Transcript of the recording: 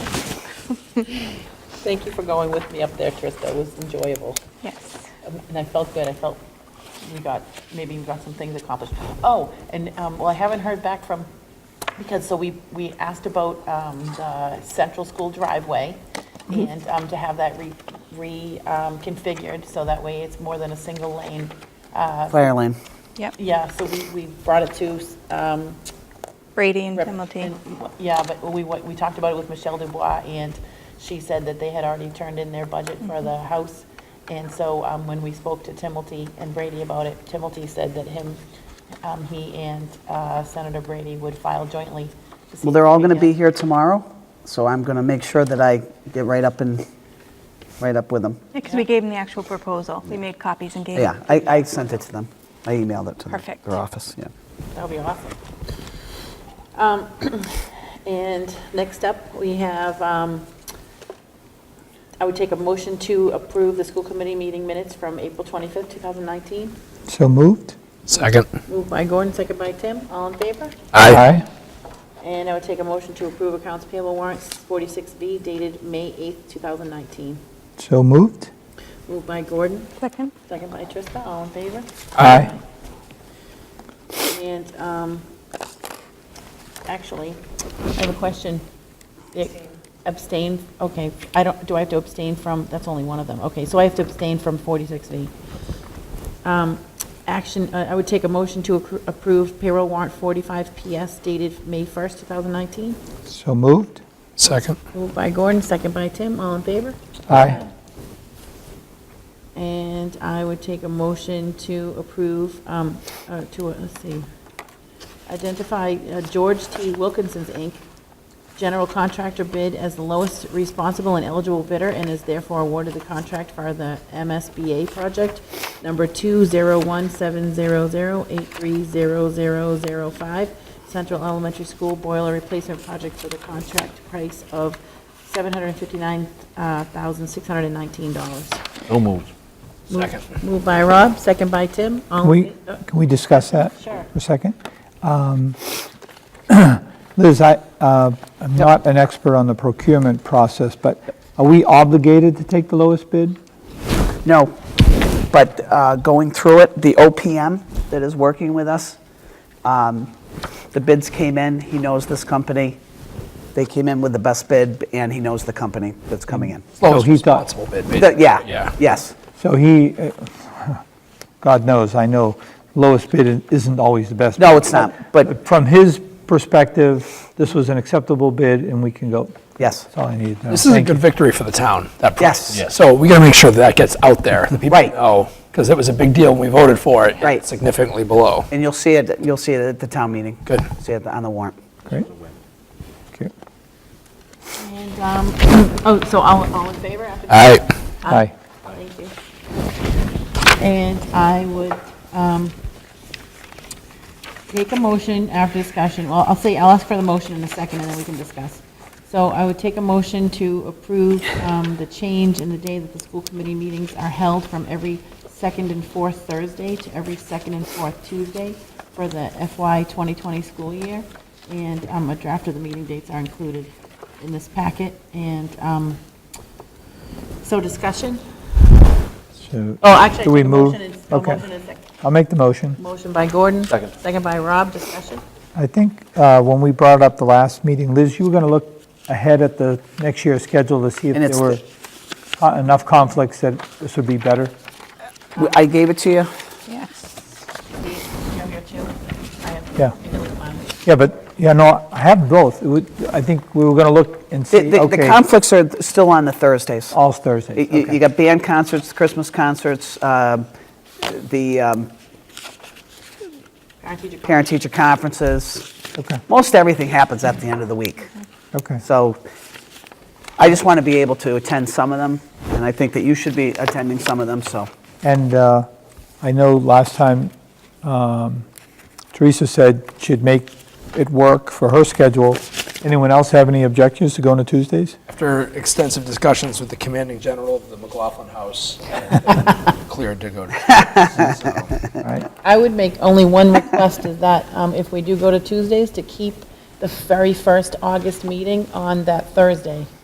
Thank you for going with me up there, Trista. It was enjoyable. Yes. Um, And I felt good. I felt we got, maybe we got some things accomplished. Oh, and, um, well, I haven't heard back from, because, so we, we asked about, um, the central school driveway and, um, to have that re, re, um, configured so that way it's more than a single lane. Fire lane. Yep. Yeah, so we, we brought it to, um, Brady and Rep- Pimilton. and- Yeah, but we, went- we talked about it with Michelle Dubois, and she said that they had already turned in their budget for the house. And so um, when we spoke to Timothy and Brady about it, Timothy said that him, um, he and uh, Senator Brady would file jointly. this Well, they're all going to be evening. here tomorrow, so I'm going to make sure that I get right up and, right up with them. Because we gave them the actual proposal. We made copies and gave them. Yeah, I, I sent it to them. I emailed it to them. Perfect. Their office, yeah. That'll be awesome. Um, And next up, we have, um, I would take a motion to approve the school committee meeting minutes from April 25th, 2019. So moved? Second. Moved by Gordon, second by Tim. All in favor? Aye. And I would take a motion to approve accounts payable warrants 46B dated May 8th, 2019. So moved? Moved by Gordon, Second? second by Trista, all in favor? Aye. And, um, actually, I have a question. It- Abstain, okay, I don't, do I have to abstain from, that's only one of them, okay, so I have to abstain from 46B. Um, Action, uh, I would take a motion to accru- approve payroll warrant 45PS dated May 1st, 2019. So moved? Second. Moved by Gordon, second by Tim, all in favor? Aye. And I would take a motion to approve, um, uh, to, uh, let's see, identify uh, George T. Wilkinson's, Inc., general contractor bid as the lowest responsible and eligible bidder and is therefore awarded the contract for the MSBA project number 2017008300005, Central Elementary School boiler replacement project for the contract price of uh, $759,619. No moves. Move- Second. Moved by Rob, second by Tim. All in Can we, fa- uh, can we discuss that? Sure. For a second? Um, Liz, I, uh, I'm not an expert on the procurement process, but are we obligated to take the lowest bid? No, but uh, going through it, the OPM that is working with us, um, the bids came in, he knows this company. They came in with the best bid, and he knows the company that's coming in. So he thought- responsible bid, The- basically. Yeah, Yeah. yes. So he, uh, God knows, I know lowest bid isn't always the best. No, it's not, but- From his perspective, this was an acceptable bid and we can go. Yes. That's all I needed to know. This is a Thank good you. victory for the town, that price. Yes. Yes. So we got to make sure that that gets out there, the people Right. know, because it was a big deal when we voted for it. Right. Significantly below. And you'll see it, you'll see it at the town meeting. Good. See it on the warrant. Great. Okay. And, um, oh, so all, all in favor? after- Aye. Thank you. And I would um, take a motion after discussion, well, I'll say, I'll ask for the motion in a second, and then we can discuss. So I would take a motion to approve um, the change in the day that the school committee meetings are held from every second and fourth Thursday to every second and fourth Tuesday for the FY 2020 school year, and um, a draft of the meeting dates are included in this packet, and um, so discussion? So Oh, actually, I Do we took a move? motion and- a Okay. motion and a second. I'll make the motion. Motion by Gordon. Second. Second by Rob, discussion. I think uh, when we brought it up the last meeting, Liz, you were going to look ahead at the next year's schedule to see if And it's there were the- co- enough conflicts that this would be better. We- I gave it to you. Yes. You have your two? I have- Yeah. I know it's mine. Yeah, but, yeah, no, I have both. It would- I think we were going to look and The- see, The the okay, conflicts are still on the Thursdays. all Thursdays, You- You okay. got band concerts, Christmas concerts, uh, the Parent um, teacher conference. parent-teacher conferences. Okay, Most everything happens at the end of the week. okay. So I just want to be able to attend some of them, and I think that you should be attending some of them, so. And uh, I know last time um, Teresa said she'd make it work for her schedule. Anyone else have any objections to going to Tuesdays? After extensive discussions with the commanding general of the McLaughlin House, cleared to go to. so. All right, I would make only one request is that um, if we do go to Tuesdays, to keep the very first August meeting on that Thursday.